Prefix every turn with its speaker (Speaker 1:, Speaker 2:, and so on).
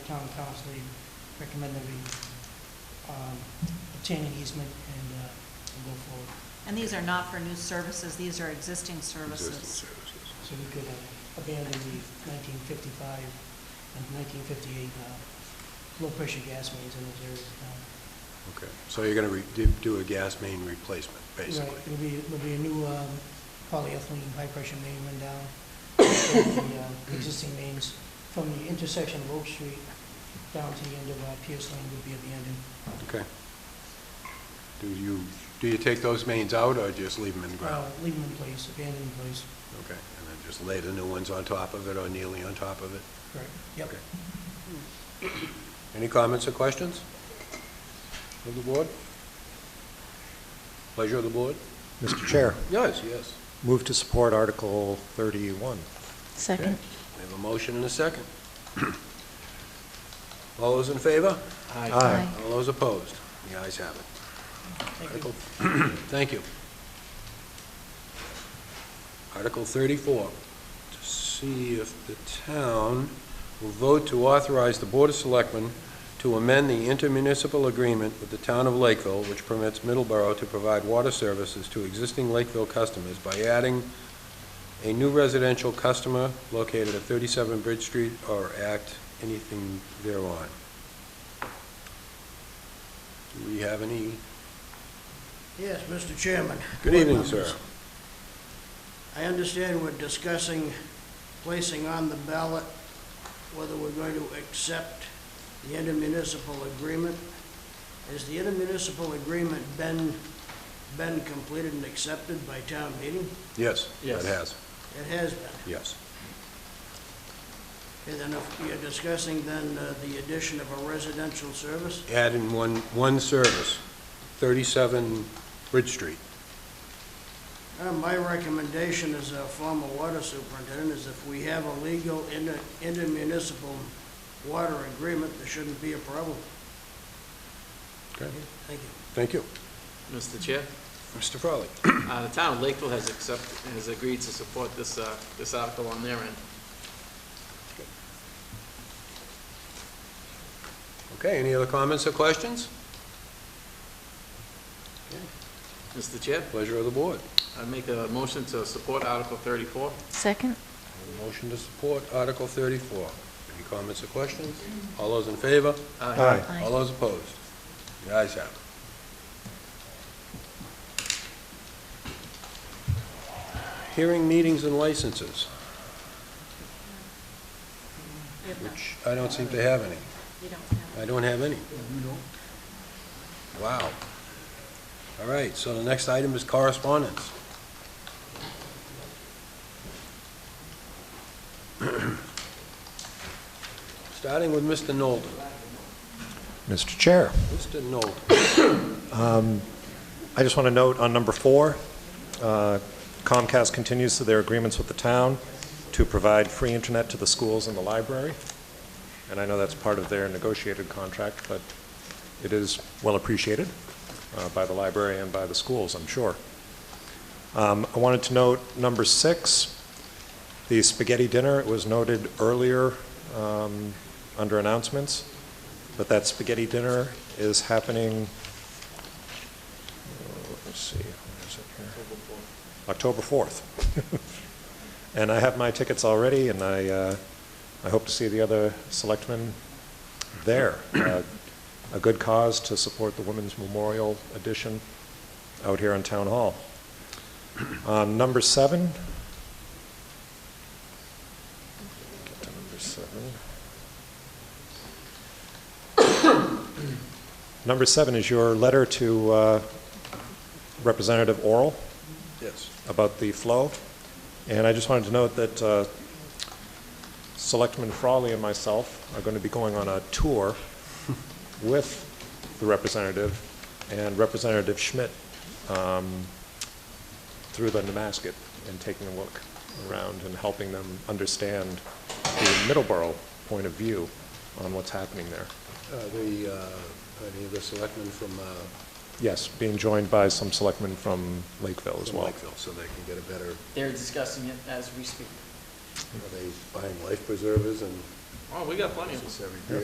Speaker 1: town council, they recommend that we um, obtain an easement and uh, and go forward.
Speaker 2: And these are not for new services, these are existing services.
Speaker 3: Existing services.
Speaker 1: So we could uh, abandon the 1955 and 1958 uh, low-pressure gas mains in those areas. Uh, of town.
Speaker 3: Okay, so you're gonna re- do- do a gas main replacement, basically?
Speaker 1: Right, There'll be, there'll be a new um, polyethylene high-pressure main run down, and the uh, existing mains from the intersection of Oak Street down to the end of uh, Pierce Lane would be abandoned.
Speaker 3: Okay. Do you, do you take those mains out or just leave them in the
Speaker 1: Uh,
Speaker 3: ground?
Speaker 1: Leave them in place, abandoned in place.
Speaker 3: Okay, and then just lay the new ones on top of it or nearly on top of it?
Speaker 1: Correct. Yep.
Speaker 3: Okay. Any comments or questions of the board? Pleasure of the board?
Speaker 4: Mr. Chair,
Speaker 3: Yes, yes.
Speaker 4: move to support Article 31.
Speaker 3: Okay.
Speaker 5: Second.
Speaker 3: We have a motion and a second. All those in favor?
Speaker 5: Aye.
Speaker 3: All those opposed? The ayes have it.
Speaker 1: Thank you.
Speaker 3: Article, thank you. Article 34, to see if the town will vote to authorize the Board of Selectmen to amend the intermunicipal agreement with the town of Lakeville, which permits Middleborough to provide water services to existing Lakeville customers by adding a new residential customer located at 37 Bridge Street or act anything thereon. Do we have any
Speaker 6: Yes, Mr. Chairman.
Speaker 3: Good evening,
Speaker 6: Board members.
Speaker 3: sir.
Speaker 6: I understand we're discussing placing on the ballot whether we're going to accept the intermunicipal agreement. Has the intermunicipal agreement been, been completed and accepted by town meeting?
Speaker 3: Yes.
Speaker 5: Yes.
Speaker 3: It has,
Speaker 6: It has been.
Speaker 3: yes.
Speaker 6: And then if you're discussing then uh, the addition of a residential service,
Speaker 3: Add in one, one service, 37 Bridge Street.
Speaker 6: Uh, My recommendation as a former water superintendent is if we have a legal inter- intermunicipal water agreement, there shouldn't be a problem.
Speaker 3: Okay,
Speaker 6: Thank you.
Speaker 3: thank you.
Speaker 7: Mr. Chair,
Speaker 3: Mr. Frawley.
Speaker 7: uh, the town of Lakeville has accepted, has agreed to support this, uh, this article on their end.
Speaker 3: Okay, any other comments or questions?
Speaker 7: Mr. Chair,
Speaker 3: Pleasure of the board.
Speaker 7: I make a motion to support Article thirty-four.
Speaker 5: Second.
Speaker 3: Motion to support Article 34. Any comments or questions? All those in favor?
Speaker 7: Uh,
Speaker 4: Aye.
Speaker 5: Aye.
Speaker 3: All those opposed? The ayes have it. Hearing meetings and licenses,
Speaker 2: We have none.
Speaker 3: which I don't seem to have any.
Speaker 2: You don't have
Speaker 3: I don't have any. Wow. All right, so the next item is correspondence. Starting with Mr. Nolden.
Speaker 4: Mr. Chair,
Speaker 3: Mr. Nolden,
Speaker 4: I just want to note on number four, uh, Comcast continues their agreements with the town to provide free internet to the schools and the library, and I know that's part of their negotiated contract, but it is well appreciated uh, by the library and by the schools, I'm sure. Um, I wanted to note number six, the spaghetti dinner, it was noted earlier um, under announcements, but that spaghetti dinner is happening let's see, what is it here? October 4th. And I have my tickets already, and I, uh, I hope to see the other selectmen there. Uh, A good cause to support the Women's Memorial Edition out here in Town Hall. Um, Number seven. Get to number seven. Number seven is your letter to uh, Representative Oral
Speaker 3: yes.
Speaker 4: about the flow. And I just wanted to note that uh, Selectman Frawley and myself are going to be going on a tour with the representative and Representative Schmidt um, through the Nemasket and taking a look around and helping them understand the Middleborough point of view on what's happening there.
Speaker 3: Uh, The, uh, any of the selectmen from uh,
Speaker 4: Yes, being joined by some selectmen from Lakeville as
Speaker 3: from
Speaker 4: well.
Speaker 3: Lakeville, so they can get a better,
Speaker 8: They're discussing it as we speak.
Speaker 3: are they buying life preservers and
Speaker 7: Oh, we got plenty of them.
Speaker 3: everything?